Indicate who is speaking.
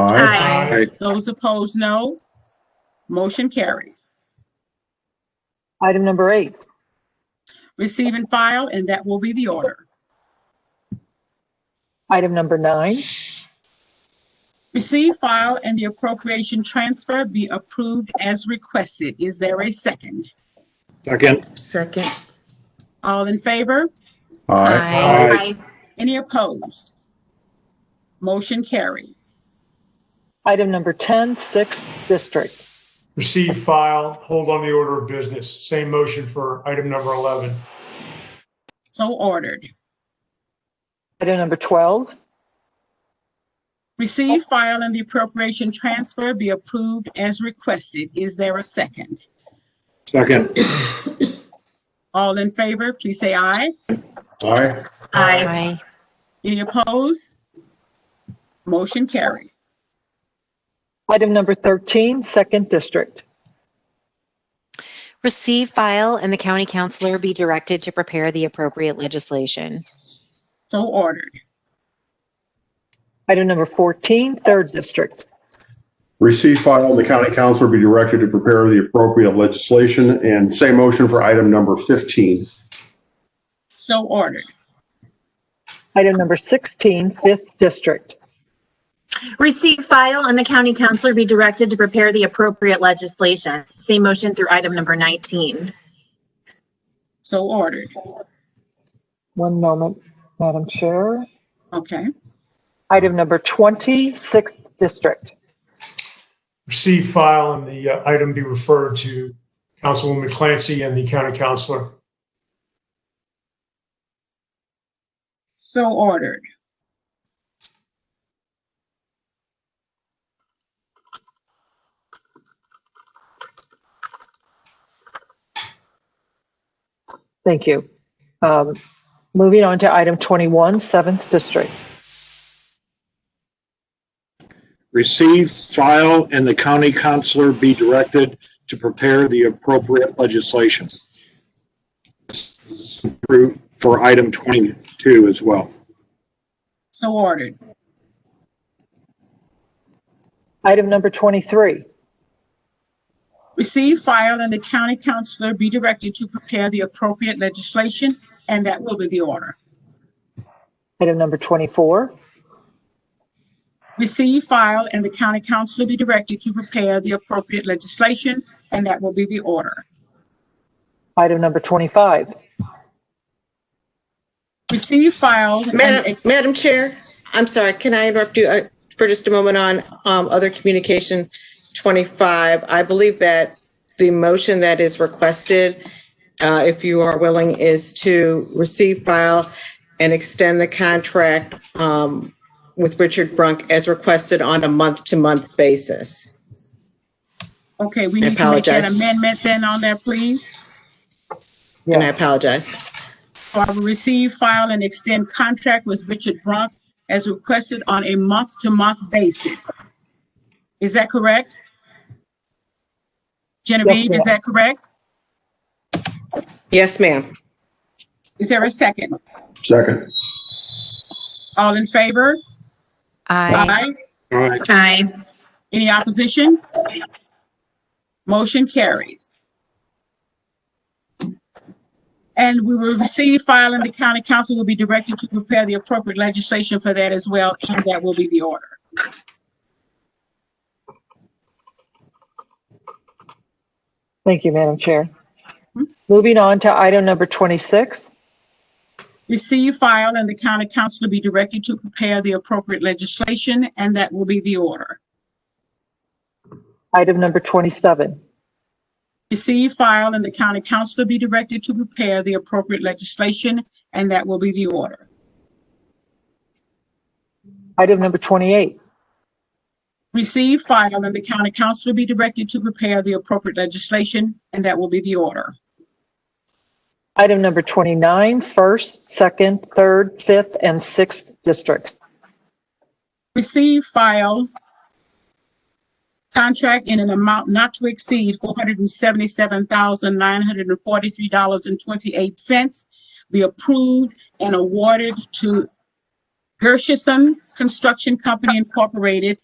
Speaker 1: Aye.
Speaker 2: Those opposed, no. Motion carries.
Speaker 3: Item number eight,
Speaker 2: Receive and file, and that will be the order.
Speaker 3: item number nine,
Speaker 2: Receive, file, and the appropriation transfer be approved as requested. Is there a second?
Speaker 4: Second.
Speaker 5: Second.
Speaker 2: All in favor?
Speaker 4: Aye.
Speaker 2: Any opposed? Motion carries.
Speaker 3: item number 10, sixth district.
Speaker 4: Receive, file, hold on the order of business. Same motion for item number 11.
Speaker 2: So ordered.
Speaker 3: Item number 12,
Speaker 2: Receive, file, and the appropriation transfer be approved as requested. Is there a second?
Speaker 4: Second.
Speaker 2: All in favor, please say aye.
Speaker 1: Aye.
Speaker 2: Aye.
Speaker 5: Aye.
Speaker 2: Any opposed? Motion carries.
Speaker 3: item number 13, second district.
Speaker 5: Receive, file, and the county counselor be directed to prepare the appropriate legislation.
Speaker 2: So ordered.
Speaker 3: Item number 14, third district.
Speaker 1: Receive, file, and the county council be directed to prepare the appropriate legislation. And same motion for item number 15.
Speaker 2: So ordered.
Speaker 3: Item number 16, fifth district.
Speaker 6: Receive, file, and the county counselor be directed to prepare the appropriate legislation. Same motion through item number 19.
Speaker 2: So ordered.
Speaker 3: One moment, Madam Chair.
Speaker 2: Okay.
Speaker 3: Item number 20, sixth district.
Speaker 4: Receive, file, and the uh, item be referred to Councilwoman Clancy and the county counselor.
Speaker 2: So ordered.
Speaker 3: Thank you. Um, Moving on to item 21, seventh district.
Speaker 7: receive, file, and the county counselor be directed to prepare the appropriate legislation. This is approved For item 22 as well.
Speaker 2: So ordered.
Speaker 3: Item number 23,
Speaker 2: Receive, file, and the county counselor be directed to prepare the appropriate legislation, and that will be the order.
Speaker 3: item number 24,
Speaker 2: Receive, file, and the county counselor be directed to prepare the appropriate legislation, and that will be the order.
Speaker 3: item number 25,
Speaker 2: Receive, file, and
Speaker 8: Madam,
Speaker 2: ex-
Speaker 8: Madam Chair, I'm sorry, can I interrupt you uh, for just a moment on um, other communication 25? I believe that the motion that is requested, uh, if you are willing, is to receive, file, and extend the contract um, with Richard Brunk as requested on a month-to-month basis.
Speaker 2: okay, we need
Speaker 8: I
Speaker 2: to make
Speaker 8: apologize.
Speaker 2: an amendment then on that, please.
Speaker 8: And I apologize.
Speaker 2: So I will receive, file, and extend contract with Richard Brunk as requested on a month-to-month basis. Is that correct? Genevieve, is that correct?
Speaker 8: Yes, ma'am.
Speaker 2: Is there a second?
Speaker 1: Second.
Speaker 2: All in favor?
Speaker 5: Aye.
Speaker 7: All right,
Speaker 6: Aye.
Speaker 2: Any opposition? Motion carries. And we will receive, file, and the county council will be directed to prepare the appropriate legislation for that as well, and that will be the order.
Speaker 3: Thank you, Madam Chair. Moving on to item number 26,
Speaker 2: Receive, file, and the county council be directed to prepare the appropriate legislation, and that will be the order.
Speaker 3: item number 27,
Speaker 2: Receive, file, and the county council be directed to prepare the appropriate legislation, and that will be the order.
Speaker 3: item number 28,
Speaker 2: Receive, file, and the county council be directed to prepare the appropriate legislation, and that will be the order.
Speaker 3: item number 29, first, second, third, fifth, and sixth districts.
Speaker 2: Receive, file, contract in an amount not to exceed four hundred and seventy-seven thousand nine hundred and forty-three dollars and twenty-eight cents be approved and awarded to Gershenson Construction Company Incorporated